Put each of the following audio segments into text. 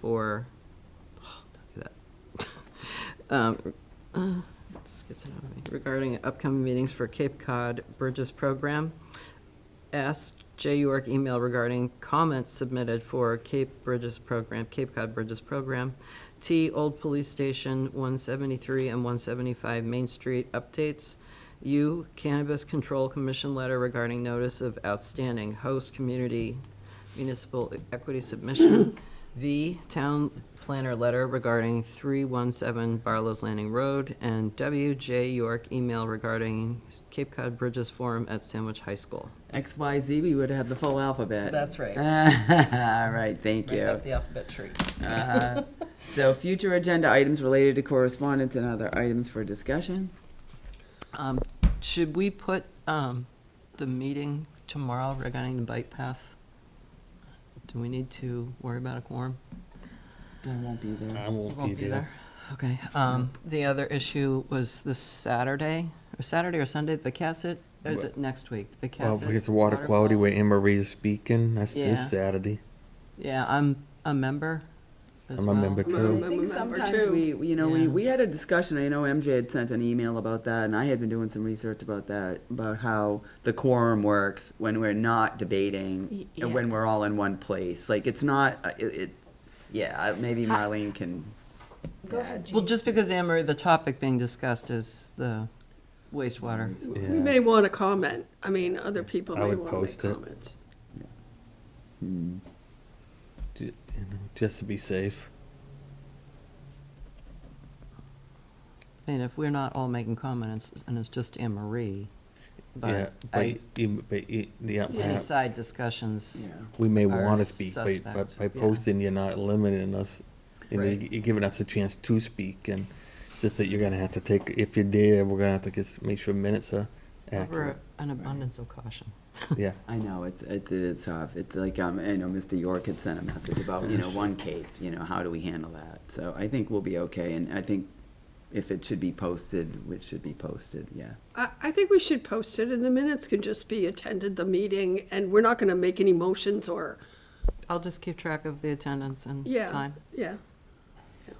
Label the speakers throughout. Speaker 1: for, don't do that. Um, uh, this gets it out of me. Regarding upcoming meetings for Cape Cod Bridges Program, asked Jay York email regarding comments submitted for Cape Bridges Program, Cape Cod Bridges Program, T Old Police Station, 173 and 175 Main Street updates, U Cannabis Control Commission letter regarding notice of outstanding host community municipal equity submission, V Town Planner letter regarding 317 Barlow's Landing Road, and W J York email regarding Cape Cod Bridges Forum at Sandwich High School.
Speaker 2: XYZ, we would have the full alphabet.
Speaker 1: That's right.
Speaker 2: All right, thank
Speaker 1: Right
Speaker 2: you.
Speaker 1: up the alphabet tree.
Speaker 2: Uh, So future agenda items related to correspondence and other items for discussion.
Speaker 1: Um, Should we put um, the meeting tomorrow regarding the bike path? Do we need to worry about a quorum?
Speaker 2: I won't be there.
Speaker 3: I won't be there.
Speaker 1: Okay. um, The other issue was this Saturday, or Saturday or Sunday, the Cassett, or is it next week? The
Speaker 3: Well,
Speaker 1: Cassett.
Speaker 3: it's a water quality
Speaker 1: waterfall?
Speaker 3: where Anne Marie is speaking. That's
Speaker 1: Yeah.
Speaker 3: this Saturday.
Speaker 1: Yeah, I'm a member as
Speaker 3: I'm a
Speaker 1: well.
Speaker 3: member too.
Speaker 4: Well, I
Speaker 2: I think
Speaker 4: remember
Speaker 2: sometimes
Speaker 4: too.
Speaker 2: we, you know, we,
Speaker 1: Yeah.
Speaker 2: we had a discussion, I know MJ had sent an email about that, and I had been doing some research about that, about how the quorum works when we're not
Speaker 4: Y-
Speaker 2: debating, and
Speaker 4: yeah.
Speaker 2: when we're all in one place, like, it's not, uh, it, it, yeah, I- maybe Marlene can.
Speaker 4: Go ahead,
Speaker 1: Well,
Speaker 4: Jean.
Speaker 1: just because, Anne Marie, the topic being discussed is the wastewater.
Speaker 4: We
Speaker 3: Yeah.
Speaker 4: may want to comment. I mean, other people
Speaker 3: I
Speaker 4: may
Speaker 3: would
Speaker 4: want to make
Speaker 3: post it.
Speaker 4: comments.
Speaker 3: Ju- you know, Just to be safe.
Speaker 1: And if we're not all making comments, and it's just Anne Marie,
Speaker 3: Yeah,
Speaker 1: but
Speaker 3: but,
Speaker 1: I-
Speaker 3: you- but you- yeah,
Speaker 1: any
Speaker 3: yeah,
Speaker 1: side discussions,
Speaker 3: we may
Speaker 1: are
Speaker 3: want to speak, but- but
Speaker 1: suspect,
Speaker 3: by
Speaker 1: yeah.
Speaker 3: posting, you're not limiting us. You know,
Speaker 1: Right.
Speaker 3: you're giving us a chance to speak and it's just that you're gonna have to take, if you're there, we're gonna have to just make sure minutes are
Speaker 1: over
Speaker 3: accurate.
Speaker 1: an abundance of caution.
Speaker 3: Yeah,
Speaker 2: I know, it's, it's, it's tough, it's like, um, I know Mr. York had sent a message about, you know, one cape, you know, how do we handle that? So I think we'll be okay, and I think if it should be posted, which should be posted, yeah.
Speaker 4: I, I think we should post it, and the minutes can just be attended the meeting, and we're not going to make any motions or,
Speaker 1: I'll just keep track of the attendance and
Speaker 4: yeah,
Speaker 1: time.
Speaker 4: yeah. Yeah.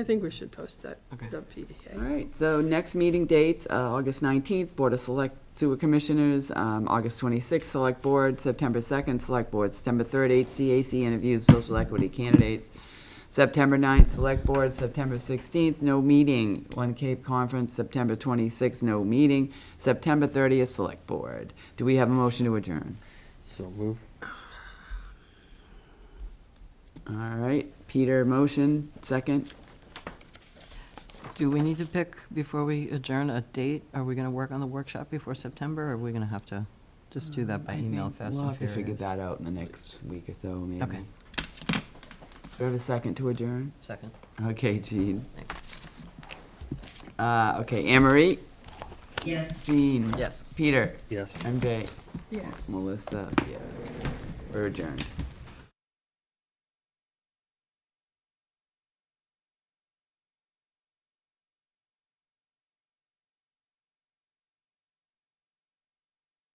Speaker 4: I think we should post that,
Speaker 1: Okay.
Speaker 4: the
Speaker 2: All
Speaker 4: PDA.
Speaker 2: right, so next meeting dates, uh, August 19th, Board of Select Sewer Commissioners, um, August 26th, Select Board, September 2nd, Select Board, September 3rd, HCAC interviews, social equity candidates, September 9th, Select Board, September 16th, no meeting, One Cape Conference, September 26th, no meeting, September 30th, Select Board. Do we have a motion to adjourn?
Speaker 3: so move.
Speaker 2: All right, Peter, motion, second.
Speaker 1: Do we need to pick, before we adjourn, a date? Are we going to work on the workshop before September, or are we going to have to just do that by email fast
Speaker 2: Um,
Speaker 1: and
Speaker 2: We'll have to
Speaker 1: furious?
Speaker 2: figure that out in the next week or so, maybe.
Speaker 1: Okay.
Speaker 2: Do we have a second to adjourn?
Speaker 1: Second.
Speaker 2: Okay, Jean. Uh, okay, Anne Marie? Yes. Jean?
Speaker 1: Yes.
Speaker 2: Peter?
Speaker 3: Yes.
Speaker 2: MJ?
Speaker 4: Yes.
Speaker 2: Melissa, yes. We're adjourned.